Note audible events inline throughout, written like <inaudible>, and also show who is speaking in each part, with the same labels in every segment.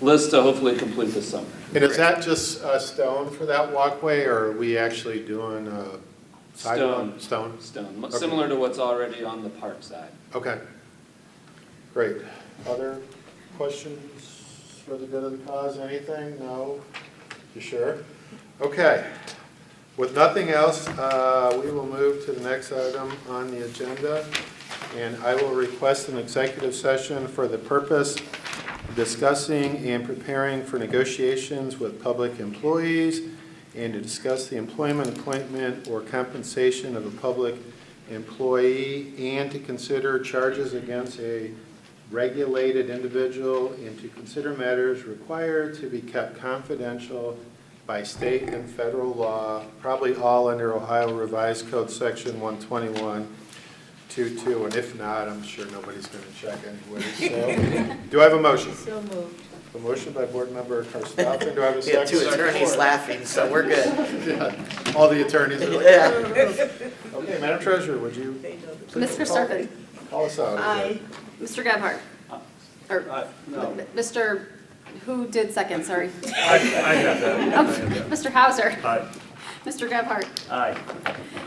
Speaker 1: list to hopefully complete this summer.
Speaker 2: And is that just uh, stone for that walkway, or are we actually doing uh, sidewalk?
Speaker 1: Stone.
Speaker 2: Stone.
Speaker 1: Stone,
Speaker 2: Okay.
Speaker 1: similar to what's already on the park side.
Speaker 2: Okay. Great. Other questions for the good of the cause, anything? No? You sure? Okay. With nothing else, uh, we will move to the next item on the agenda. And I will request an executive session for the purpose of discussing and preparing for negotiations with public employees and to discuss the employment, appointment, or compensation of a public employee and to consider charges against a regulated individual and to consider matters required to be kept confidential by state and federal law, probably all under Ohio Revised Code Section 121, 22, and if not, I'm sure nobody's going to check anyway, so. Do I have a motion?
Speaker 3: So moved.
Speaker 2: A motion by Board Member Karstoffen, do I have a
Speaker 4: <laughs> We have
Speaker 2: second?
Speaker 4: two attorneys laughing, so
Speaker 2: <laughs>
Speaker 4: we're good.
Speaker 2: Yeah, All the attorneys are like,
Speaker 4: <laughs> Yeah.
Speaker 2: okay, Madam Treasurer, would you
Speaker 3: Ms. Karstoffen?
Speaker 2: call us out?
Speaker 3: Aye. Mr. Gebhardt?
Speaker 5: Uh,
Speaker 3: Or,
Speaker 1: No.
Speaker 3: Mr., who did second, sorry?
Speaker 5: <laughs> I, I have that.
Speaker 3: Oh, Mr. Hauser?
Speaker 5: Aye.
Speaker 3: Mr. Gebhardt?
Speaker 5: Aye.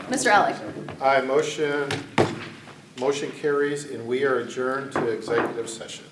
Speaker 3: Mr. Alec?
Speaker 2: Aye, motion, motion carries, and we are adjourned to executive session.